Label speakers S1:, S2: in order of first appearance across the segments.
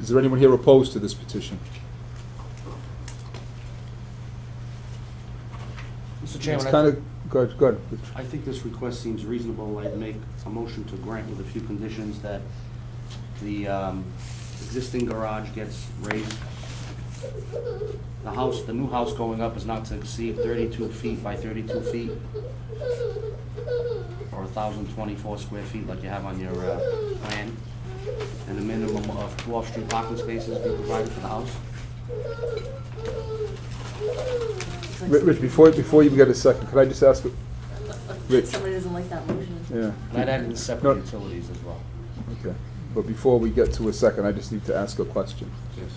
S1: Is there anyone here opposed to this petition?
S2: Mr.
S1: It's
S2: Chairman,
S1: kind
S2: I-
S1: of, good, good.
S2: I think this request seems reasonable. I'd make a motion to grant with a few conditions that the um, existing garage gets raised. The house, the new house going up is not to exceed 32 feet by 32 feet, or 1,024 square feet like you have on your uh, plan, and a minimum of two off-street parking spaces be provided for the house.
S1: Ri- Rich, before, before you get a second, could I just ask, Rich,
S3: Somebody doesn't like that motion.
S1: yeah,
S2: And I'd add in
S1: No.
S2: separate utilities as well.
S1: okay. But before we get to a second, I just need to ask a question.
S2: Yes.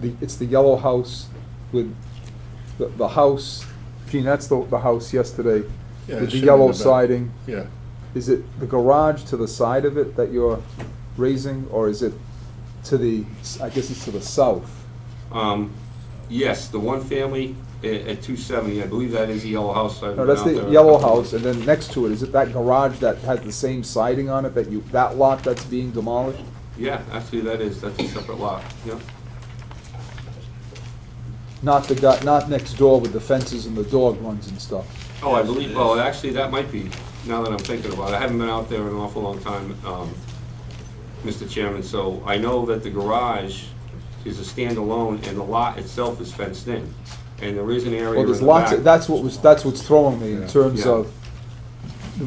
S1: The, it's the yellow house with, the, the house, Gene, that's the, the house yesterday,
S4: Yeah, it
S1: with the
S4: should be
S1: yellow
S4: the back.
S1: siding.
S4: Yeah,
S1: Is it the garage to the side of it that you're raising, or is it to the, I guess it's to the south?
S5: Um, Yes, the one family a- at 270, I believe that is the yellow house. I've
S1: No, that's
S5: been out
S1: the
S5: there.
S1: yellow house, and then next to it, is it that garage that has the same siding on it, that you, that lot that's being demolished?
S5: Yeah, actually, that is, that's a separate lot, yeah.
S1: Not the guy, not next door with the fences and the dog runs and stuff.
S5: Oh, I believe, well, actually, that might be, now that I'm thinking about it, I haven't been out there in an awful long time, um, Mr. Chairman, so I know that the garage is a standalone, and the lot itself is fenced in, and there is an area
S1: Well,
S5: in the
S1: there's lots,
S5: back.
S1: of- that's what was, that's what's throwing me in
S4: Yeah.
S1: terms
S5: Yeah.
S1: of,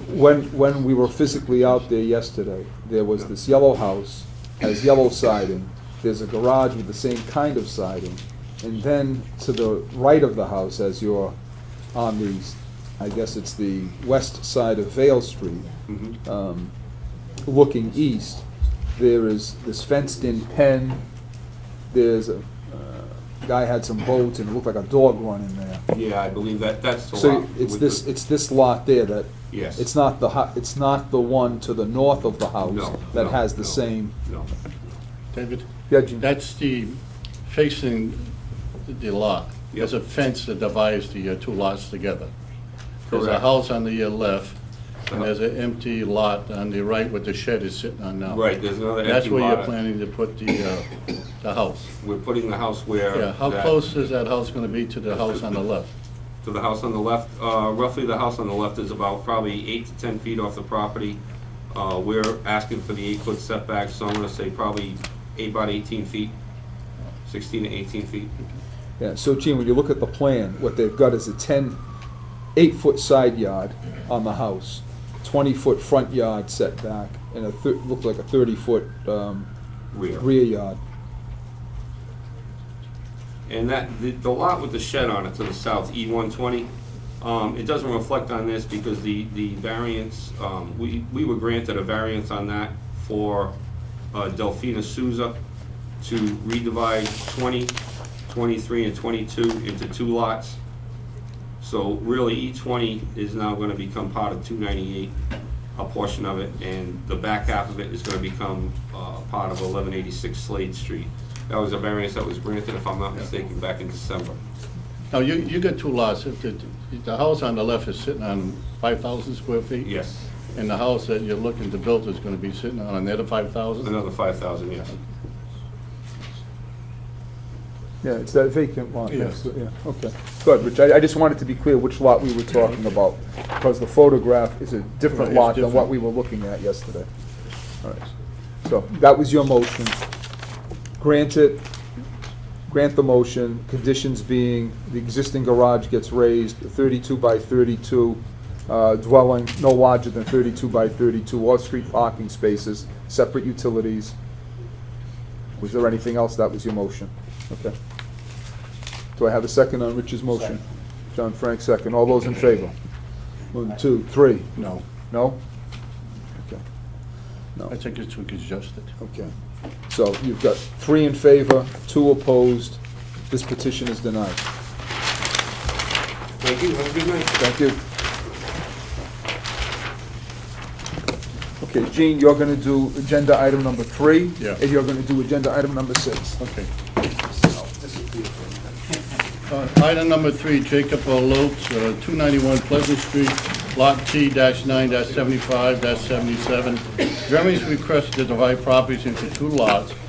S1: when, when we were physically out there yesterday, there was this yellow house, has yellow siding, there's a garage with the same kind of siding, and then to the right of the house, as you're on the, I guess it's the west side of Vale Street,
S5: Mhm.
S1: um, looking east, there is this fenced-in pen, there's a, uh, guy had some boats and it looked like a dog run in there.
S5: Yeah, I believe that, that's the lot.
S1: So it's
S5: with
S1: this,
S5: the-
S1: it's this lot there that,
S5: Yes.
S1: it's not the, hu- it's not the one to the north of the house
S5: No,
S1: that
S5: no,
S1: has the
S5: no,
S1: same,
S5: No,
S4: David,
S1: yeah, Gene?
S4: that's the facing the lot. There's a
S5: Yep.
S4: fence that divides the uh, two lots together. There's a
S5: Correct.
S4: house on the uh, left, and
S5: Uh-huh.
S4: there's an empty lot on the right where the shed is sitting on now.
S5: right, there's another
S4: That's
S5: empty lot.
S4: where you're planning to put the, uh, the house.
S5: We're putting the house where.
S4: Yeah, how
S5: that-
S4: close is that house gonna be to the house on the left?
S5: To the house on the left, uh, roughly the house on the left is about probably eight to 10 feet off the property. Uh, We're asking for the eight-foot setback, so I'm gonna say probably eight by 18 feet, 16 to 18 feet.
S1: Yeah, so Gene, when you look at the plan, what they've got is a ten, eight-foot side yard on the house, twenty-foot front yard setback, and a thir- looked like a thirty-foot, um,
S5: Rear.
S1: rear yard.
S5: And that, the the lot with the shed on it to the south, E120, um, it doesn't reflect on this because the, the variance, um, we, we were granted a variance on that for uh, Delphina Souza to redivide 20, 23, and 22 into two lots. So really, E20 is now going to become part of 298, a portion of it, and the back half of it is going to become uh, part of 1186 Slade Street. That was a variance that was granted, if I'm not mistaken, back in December.
S4: Now, you, you got two lots. If the, if the house on the left is sitting on five thousand square feet?
S5: Yes,
S4: And the house that you're looking to build is gonna be sitting on another five thousand?
S5: another 5,000, yes.
S1: Yeah, it's that vacant lot.
S4: Yeah.
S1: next to it, Yeah, okay. Good, Rich, I, I just wanted to be clear which lot we were talking about, because the photograph is a
S4: Right,
S1: different
S4: it's
S1: lot than what
S4: different.
S1: we were looking at yesterday. All right, so that was your motion. Grant it, grant the motion, conditions being the existing garage gets raised, thirty-two by thirty-two uh, dwelling, no larger than thirty-two by thirty-two off-street parking spaces, separate utilities. Was there anything else? That was your motion. Okay. Do I have a second on Rich's motion? John Frank, second. All those in favor? One, two, three.
S4: No,
S1: No? Okay.
S4: I think it's too congested.
S1: Okay. So you've got three in favor, two opposed. This petition is denied.
S5: Thank you, have a good night.
S1: Thank you. Okay, Gene, you're gonna do agenda item number three.
S4: Yeah.
S1: And you're gonna do agenda item number six.
S4: Okay. Uh, Item number three, Jacob O. Lopes, uh, 291 Pleasant Street, Lot T-9-75-77. Jeremy's requested to divide properties into two lots